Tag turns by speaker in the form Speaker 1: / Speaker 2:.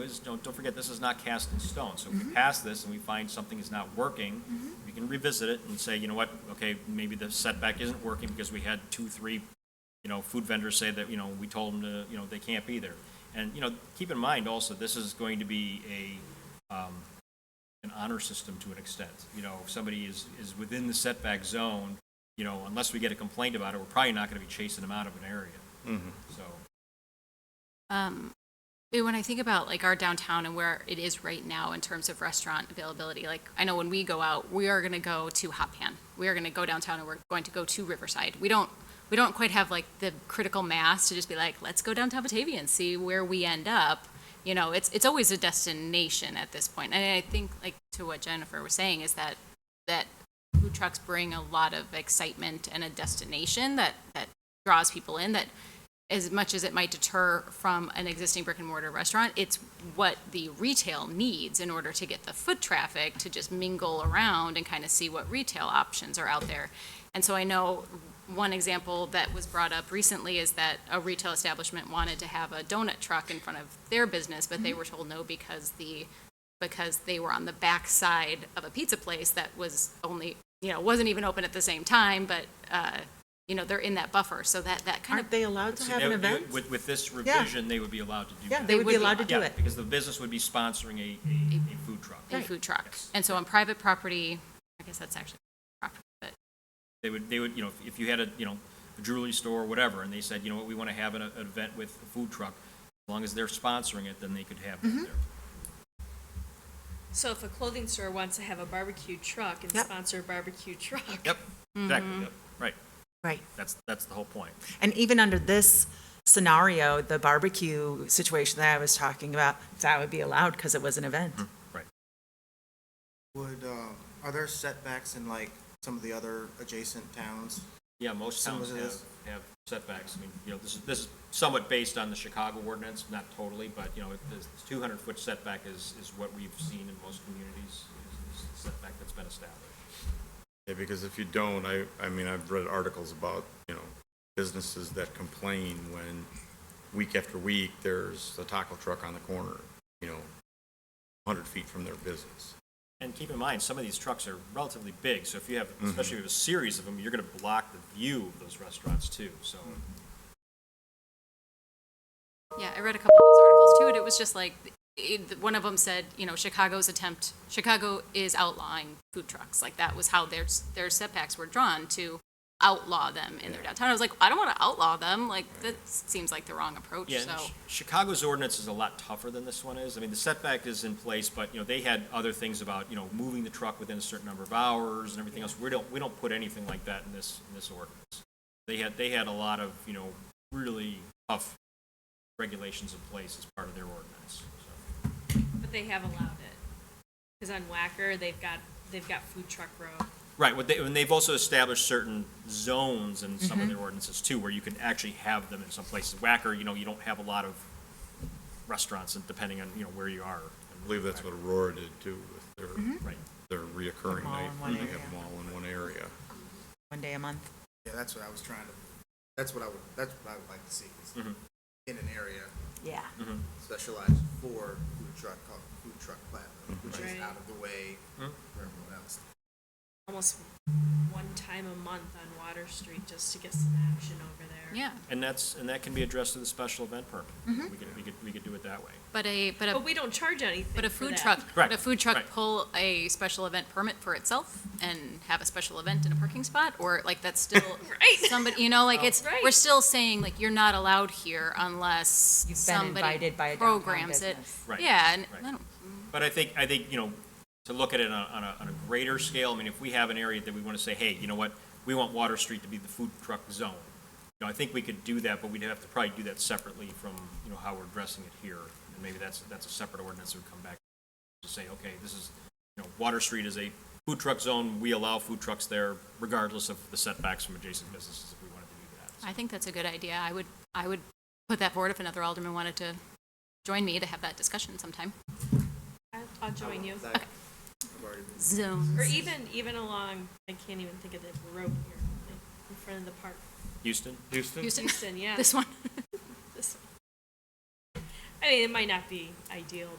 Speaker 1: because, don't, don't forget, this is not cast in stone. So if we pass this and we find something is not working, we can revisit it and say, you know what, okay, maybe the setback isn't working because we had two, three, you know, food vendors say that, you know, we told them to, you know, they can't be there. And, you know, keep in mind also, this is going to be a, um, an honor system to an extent. You know, if somebody is, is within the setback zone, you know, unless we get a complaint about it, we're probably not going to be chasing them out of an area. So,
Speaker 2: Um, eh, when I think about like our downtown and where it is right now in terms of restaurant availability, like I know when we go out, we are going to go to Hot Pan. We are going to go downtown and we're going to go to Riverside. We don't we don't quite have like the critical mass to just be like, let's go downtown Batavia and see where we end up. You know, it's it's always a destination at this point. And I think like to what Jennifer was saying is that that food trucks bring a lot of excitement and a destination that that draws people in that as much as it might deter from an existing brick and mortar restaurant, it's what the retail needs in order to get the foot traffic to just mingle around and kind of see what retail options are out there. And so I know one example that was brought up recently is that a retail establishment wanted to have a donut truck in front of their business, but they were told no because the because they were on the back side of a pizza place that was only you know wasn't even open at the same time, but uh, you know they're in that buffer, so that that kind of
Speaker 3: Aren't they allowed to
Speaker 1: See,
Speaker 3: have
Speaker 1: they
Speaker 3: an
Speaker 1: would- they would-
Speaker 3: event?
Speaker 1: With, with this revision, they would be allowed to do
Speaker 3: Yeah,
Speaker 1: that.
Speaker 3: they would be allowed to do
Speaker 1: Yeah,
Speaker 3: it.
Speaker 1: Because the business would be sponsoring a, a, a food truck.
Speaker 2: a food truck.
Speaker 1: Yes.
Speaker 2: And so on private property, I guess that's actually property, but
Speaker 1: They would, they would, you know, if- if you had a, you know, a jewelry store or whatever, and they said, you know what, we want to have an, an event with a food truck, as long as they're sponsoring it, then they could have
Speaker 3: Mm-hmm.
Speaker 1: it there.
Speaker 4: So if a clothing store wants to have a barbecue truck and
Speaker 3: Yep.
Speaker 4: sponsor a barbecue truck.
Speaker 1: Yep,
Speaker 3: Mm-hmm.
Speaker 1: exactly, yep, right.
Speaker 3: Right.
Speaker 1: That's, that's the whole point.
Speaker 3: And even under this scenario, the barbecue situation that I was talking about, that would be allowed because it was an event.
Speaker 1: Hmm.
Speaker 5: Would, uh, are there setbacks in like some of the other adjacent towns?
Speaker 1: Yeah, most
Speaker 5: Some
Speaker 1: towns
Speaker 5: of it
Speaker 1: have,
Speaker 5: is.
Speaker 1: have setbacks. I mean, you know, this is, this is somewhat based on the Chicago ordinance, not totally, but, you know, the two hundred foot setback is, is what we've seen in most communities, is is the setback that's been established.
Speaker 6: Yeah, because if you don't, I, I mean, I've read articles about, you know, businesses that complain when week after week, there's a taco truck on the corner, you know, 100 feet from their business.
Speaker 1: And keep in mind, some of these trucks are relatively big, so if you have,
Speaker 5: Mm-hmm.
Speaker 1: especially if you have a series of them, you're gonna block the view of those restaurants too, so.
Speaker 5: Mm-hmm.
Speaker 2: yeah, I read a couple of those articles too, and it was just like, it, one of them said, you know, Chicago's attempt, Chicago is outlawing food trucks. Like that was how their, their setbacks were drawn to outlaw them in their downtown. I was like, I don't want to outlaw them. Like that seems like the wrong approach,
Speaker 1: Yeah, and
Speaker 2: so.
Speaker 1: Chi- Chicago's ordinance is a lot tougher than this one is. I mean, the setback is in place, but, you know, they had other things about, you know, moving the truck within a certain number of hours and everything else. We don't, we don't put anything like that in this, in this ordinance. They had, they had a lot of, you know, really tough regulations in place as part of their ordinance, so.
Speaker 4: But they have allowed it. Because on Whacker, they've got, they've got food truck road.
Speaker 1: Right, what they, and they've also established certain zones in some of their ordinances too, where you can actually have them in some places. Whacker, you know, you don't have a lot of restaurants, and depending on, you know, where you are.
Speaker 6: I believe that's what Aurora did too with their,
Speaker 1: Right,
Speaker 6: their reoccurring
Speaker 3: All Mm-hmm. in
Speaker 6: night.
Speaker 3: one
Speaker 6: They have
Speaker 3: area.
Speaker 6: them all in one area.
Speaker 3: One day a month.
Speaker 5: Yeah, that's what I was trying to, that's what I would, that's what I would like to see, is
Speaker 1: Mhm.
Speaker 5: in an area
Speaker 3: Yeah.
Speaker 5: specialized for food truck, called food truck platinum, which is
Speaker 4: Right.
Speaker 5: out of the way
Speaker 1: Mhm.
Speaker 5: for everyone else.
Speaker 4: Almost one time a month on Water Street just to get some action over there.
Speaker 2: Yeah,
Speaker 1: and that's, and that can be addressed through the special event permit. We could, we could, we could do it that way.
Speaker 2: but a, but a,
Speaker 4: But we don't charge anything
Speaker 2: but a
Speaker 4: for
Speaker 2: food
Speaker 4: that.
Speaker 2: truck,
Speaker 1: Right,
Speaker 2: would a food truck
Speaker 1: right.
Speaker 2: pull a special event permit for itself and have a special event in a parking spot? Or like that's still,
Speaker 4: Right.
Speaker 2: somebody, you know, like
Speaker 3: Oh,
Speaker 2: it's, we're
Speaker 4: Right.
Speaker 2: still saying like you're not allowed here unless
Speaker 3: You've been
Speaker 2: somebody
Speaker 3: invited by a downtown
Speaker 2: programs it.
Speaker 3: business.
Speaker 1: Right,
Speaker 2: Yeah, and
Speaker 1: right.
Speaker 2: I don't,
Speaker 1: But I think, I think, you know, to look at it on, on a, on a greater scale, I mean, if we have an area that we want to say, hey, you know what, we want Water Street to be the food truck zone. You know, I think we could do that, but we'd have to probably do that separately from, you know, how we're addressing it here. And maybe that's, that's a separate ordinance that would come back to say, okay, this is, you know, Water Street is a food truck zone, we allow food trucks there regardless of the setbacks from adjacent businesses if we wanted to do that.
Speaker 2: I think that's a good idea. I would, I would put that forward if another alderman wanted to join me to have that discussion sometime.
Speaker 4: I'll, I'll join you.
Speaker 5: That- I've already been-
Speaker 2: Zoom.
Speaker 4: Or even, even along, I can't even think of the road here, like in front of the park.
Speaker 1: Houston?
Speaker 6: Houston?
Speaker 2: Houston,
Speaker 4: Houston, yeah.
Speaker 2: this one.
Speaker 4: This one. I mean, it might not be ideal,